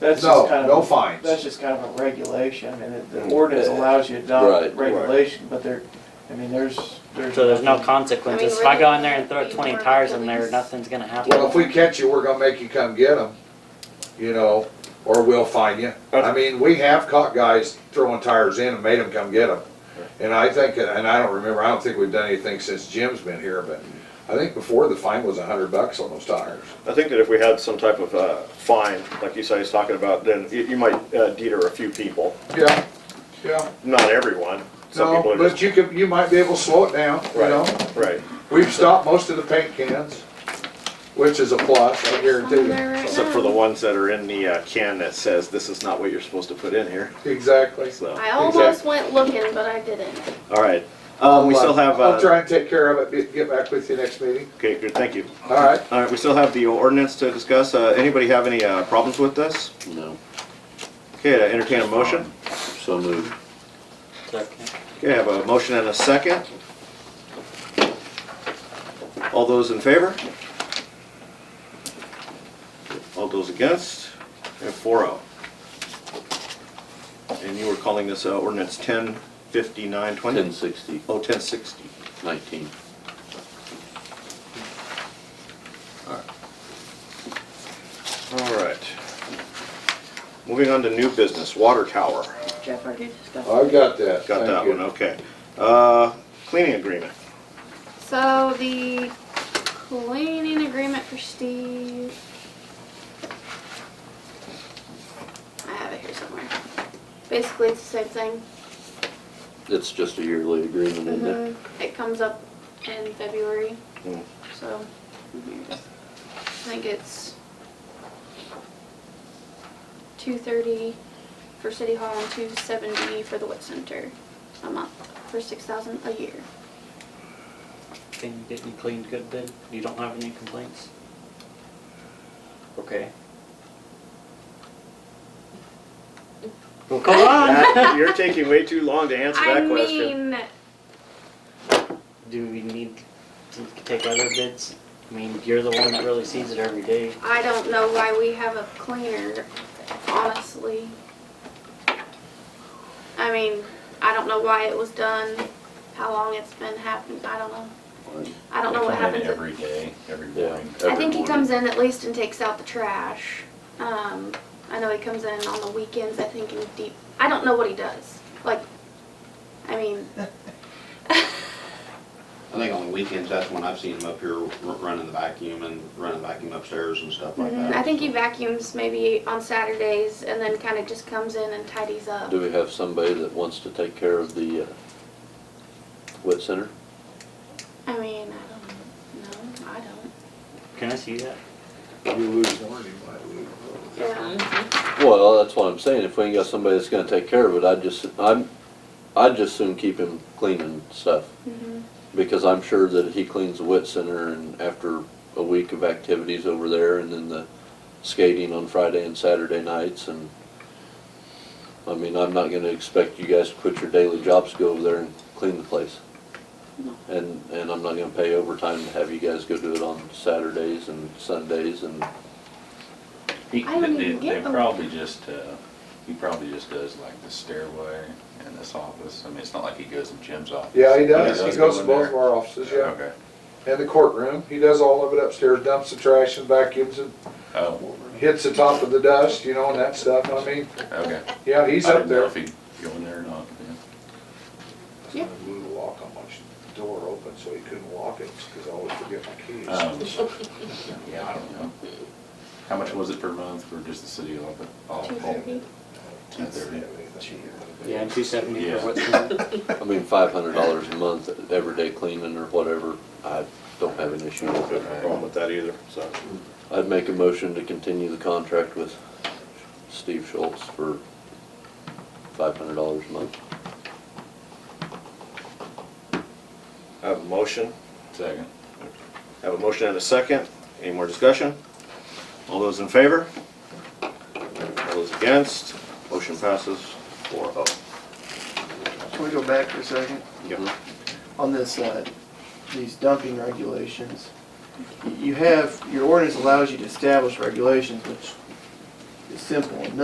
That's No, just kind of. no a- fines. Mm. That's just kind of a regulation, and it- the ordinance allows you to adopt Right. regulation, but there, I mean, there's, there's. So there's no nothing- consequences. I mean, If I go really, in there and throw we twenty were tires in there, police. nothing's gonna happen. Well, if we catch you, we're gonna make you come get them, you know, or we'll fine you. I mean, we have caught guys throwing tires in and made them come get them. And I think, and I don't remember, I don't think we've done anything since Jim's been here, but I think before the fine was a hundred bucks on those tires. I think that if we had some type of uh, fine, like you say, he's talking about, then you you might uh, deter a few people, Yeah, yeah. not everyone. Some No, people are but just. you could, you might be able to slow it down, you Right, know? Right. We've stopped most of the paint cans, which is a plus, I guarantee On you. there right Except for the now. ones that are in the uh, can that says, this is not what you're supposed to put in here, Exactly. so. I almost went looking, but I didn't. All right. Um, we still have, I'll uh, try and take care of it, get back with you next meeting, okay, good, thank you. all right? All right, we still have the ordinance to discuss. Uh, Anybody have any uh, problems with this? No, Okay, to entertain a motion. so moved. Okay, I have a motion and a second. All those in favor? All those against? And four oh. And you were calling this uh, ordinance ten fifty-nine Ten twenty? sixty, Oh, ten sixty. nineteen. All right. Moving on to new business, water tower. Jeff already discussed. I've got that. Got Thank that you. one, okay. Uh, Cleaning agreement. So the cleaning agreement for Steve. I have it here somewhere. Basically, it's the same thing. It's just a yearly agreement, isn't it? Mhm. It comes up in February, Mm. so. mm-hmm, here it is. I think it's two thirty for City Hall and two seventy for the Wit Center a month for six thousand a year. Thing getting cleaned good then? You don't have any complaints? Okay. Well, come on! Matt, You're taking way too long to answer I that question. mean, Do we need to take other bids? I mean, you're the one that really sees it every day. I don't know why we have a cleaner, honestly. I mean, I don't know why it was done, how long it's been happening, I don't know. I don't know what They come in happens. Every day, every Yeah. morning. Mm-hmm. I think he comes in at least and takes out the trash. Um, I know he comes in on the weekends, I think, and deep, I don't know what he does. Like, I mean, I think on the weekends, that's when I've seen him up here r- running the vacuum and running the vacuum upstairs and stuff like that. I think he vacuums maybe on Saturdays and then kind of just comes in and tidies up. Do we have somebody that wants to take care of the uh, wet center? I mean, I don't know. I don't. Can I see that? You lose one, you might lose. Yeah. Well, that's what I'm saying, if we ain't got somebody that's gonna take care of it, I'd just, I'm, I'd just soon keep him cleaning stuff. hmm Because I'm sure that he cleans the wet center and after a week of activities over there and then the skating on Friday and Saturday nights and I mean, I'm not gonna expect you guys to quit your daily jobs, to go over there and clean the place. And, and I'm not gonna pay overtime to have you guys go do it on Saturdays and Sundays and, He- I don't they- even they get them. probably just, uh, he probably just does like the stairway and this office. I mean, it's not like he goes to Jim's office. Yeah, he does. He go goes to in both of there. our offices, yeah. Okay. And the courtroom. He does all of it upstairs, dumps the trash and vacuums and Oh, hits the top of the dust, you know, and that stuff. I mean, okay. yeah, he's I up didn't know there. If he'd go in there or not. yeah. Yeah. I blew the lock on my door open, so he couldn't lock it, because I always forget my Oh, keys. Um, Yeah, I don't know. How much was it per month for just the city of Lubbock? Two thirty. He doesn't Yeah. have anything. Yeah, two seventy Yeah. for what's in it. I mean, five hundred dollars a month, everyday cleaning or whatever, I don't have an issue with Good it. problem with that either, so. I'd make a motion to continue the contract with Steve Schultz for five hundred dollars a month. I have a motion, Second. I have a motion and a second. Any more discussion? All those in favor? All those against? Motion passes four oh. Can we go back for a second? Yep. On this, uh, these dumping regulations, you have, your ordinance allows you to establish regulations, which is simple enough.